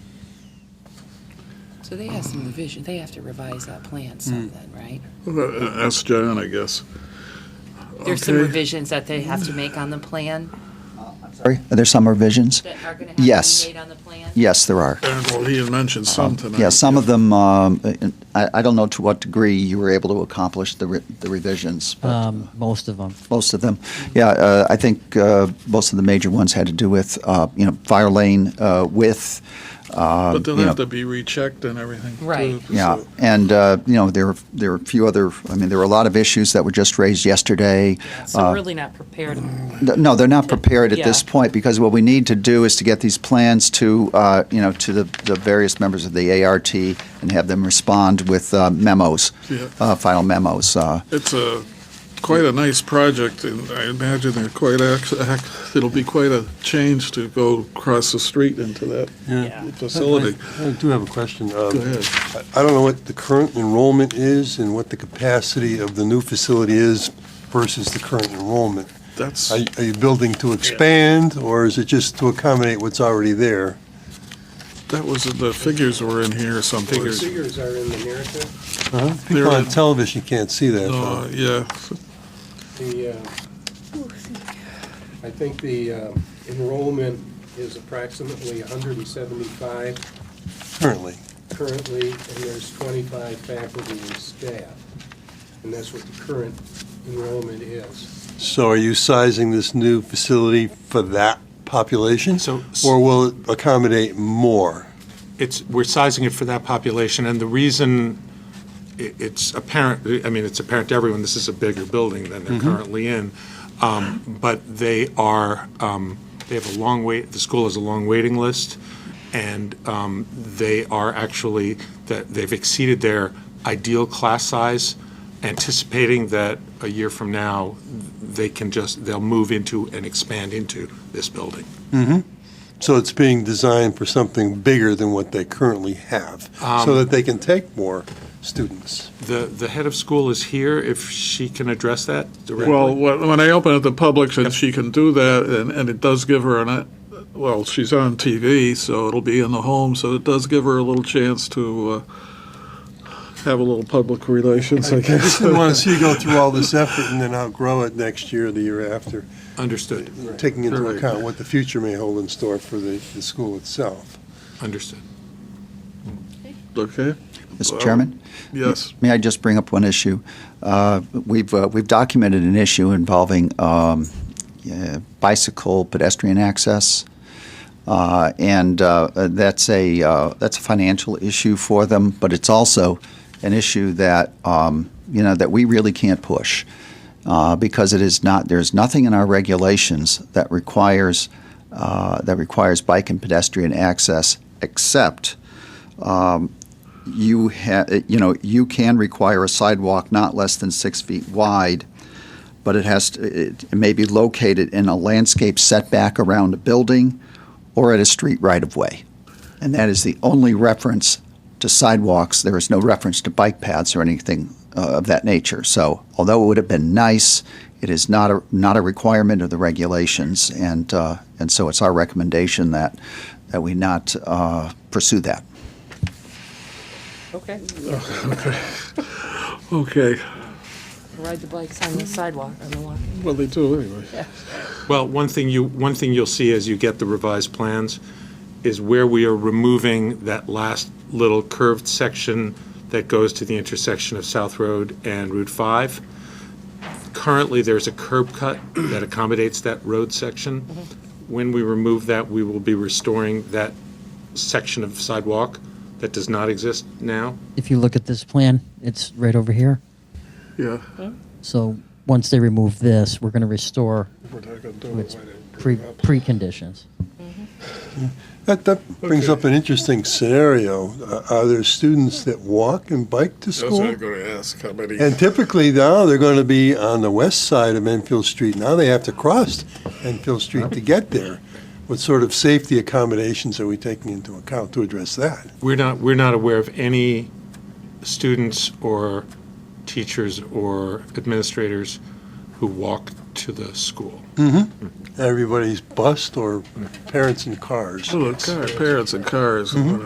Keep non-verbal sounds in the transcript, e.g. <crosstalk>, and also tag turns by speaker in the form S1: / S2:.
S1: So they have some revision, they have to revise that plan something, right?
S2: Uh, Ask John, I guess.
S1: There's some
S2: Okay.
S1: revisions that they have to make on the plan
S3: Sorry, are there some revisions?
S1: that are going to have to be
S3: Yes.
S1: made on the plan?
S3: Yes, there are. Um,
S2: And, well, he had mentioned some tonight.
S3: Uh, Yeah, some of them, um, I I don't know to what degree you were able to accomplish the re- the revisions, but
S4: Um, most of them.
S3: most of them. Yeah, uh, I think uh, most of the major ones had to do with, uh, you know, fire lane uh, width. um,
S2: But they'll
S3: you know,
S2: have to be rechecked and everything. too,
S1: Right.
S3: Yeah,
S2: so-
S3: and, uh, you know, there, there were a few other, I mean, there were a lot of issues that were just raised yesterday.
S5: So we're really not prepared.
S3: Th- No, they're not prepared at
S5: Yeah.
S3: this point, because what we need to do is to get these plans to, uh, you know, to the the various members of the ART and have them respond with uh, memos,
S2: Yeah.
S3: uh, final memos. uh,
S2: It's a, quite a nice project, and I imagine they're quite, ac- ac- it'll be quite a change to go across the street into that
S5: Yeah.
S2: facility.
S6: I do have a question. Go
S2: Go ahead.
S6: I don't know what the current enrollment is and what the capacity of the new facility is versus the current enrollment.
S2: That's,
S6: Are you- are you building to expand, or is it just to accommodate what's already there?
S2: that was, the figures were in here someplace.
S7: Figures are in the narrative.
S2: Uh-huh. There
S6: People on
S2: are-
S6: television can't see that.
S2: No,
S6: though.
S2: Yeah,
S7: The, uh, I think the uh, enrollment is approximately 175
S6: currently.
S7: currently, and there's 25 faculty and staff. And that's what the current enrollment is.
S6: So are you sizing this new facility for that population?
S8: So-
S6: Or will it accommodate more?
S8: It's, we're sizing it for that population, and the reason i- it's apparent, I mean, it's apparent to everyone, this is a bigger building than they're currently in, um, but they are, um, they have a long wait, the school has a long waiting list, and um, they are actually, that they've exceeded their ideal class size, anticipating that a year from now, they can just, they'll move into and expand into this building.
S6: So it's being designed for something bigger than what they currently have, so that they can take more students.
S8: The, the head of school is here, if she can address that directly.
S2: Well, when when I open it to public, and she can do that, and, and it does give her an, uh, well, she's on TV, so it'll be in the home, so it does give her a little chance to uh, have a little public relations, I
S6: I just
S2: <laughs> guess.
S6: didn't want to see you go through all this effort and then outgrow it next year, or the year after,
S8: Understood,
S6: taking into
S2: Right.
S6: account what the future may hold in store for the, the school itself.
S8: understood.
S2: Okay,
S3: Mr.
S2: Well,
S3: Chairman?
S2: yes.
S3: May I just bring up one issue? Uh, We've, uh, we've documented an issue involving um, yeah, bicycle pedestrian access, Uh, and uh, that's a, uh, that's a financial issue for them, but it's also an issue that, um, you know, that we really can't push, uh, because it is not, there's nothing in our regulations that requires, uh, that requires bike and pedestrian access, except you ha, you know, you can require a sidewalk not less than six feet wide, but it has, to it it may be located in a landscape setback around a building or at a street right-of-way. And that is the only reference to sidewalks. There is no reference to bike paths or anything uh, of that nature. So although it would have been nice, it is not a, not a requirement of the regulations. And, uh, and so it's our recommendation that, that we not uh, pursue that.
S5: Okay,
S2: Okay,
S5: ride the bikes on the sidewalk, on the walk.
S2: well, they do anyway.
S8: Well, one thing you, one thing you'll see as you get the revised plans is where we are removing that last little curved section that goes to the intersection of South Road and Route 5. Currently, there's a curb cut that accommodates that road section. When we remove that, we will be restoring that section of sidewalk that does not exist now.
S4: If you look at this plan, it's right over here.
S2: Yeah.
S4: So once they remove this, we're going to restore
S2: We're not gonna do it
S4: its
S2: right now.
S4: pre preconditions.
S6: That, that brings up an interesting scenario. Uh, Are there students that walk and bike to
S2: That's what I'm
S6: school?
S2: gonna ask, how many?
S6: And typically now, they're going to be on the west side of Enfield Street. Now they have to cross Enfield Street to get there. What sort of safety accommodations are we taking into account to address that?
S8: We're not, we're not aware of any students or teachers or administrators who walk to the school.
S6: Everybody's bused or parents in cars?
S2: Oh, the car- Parents and cars.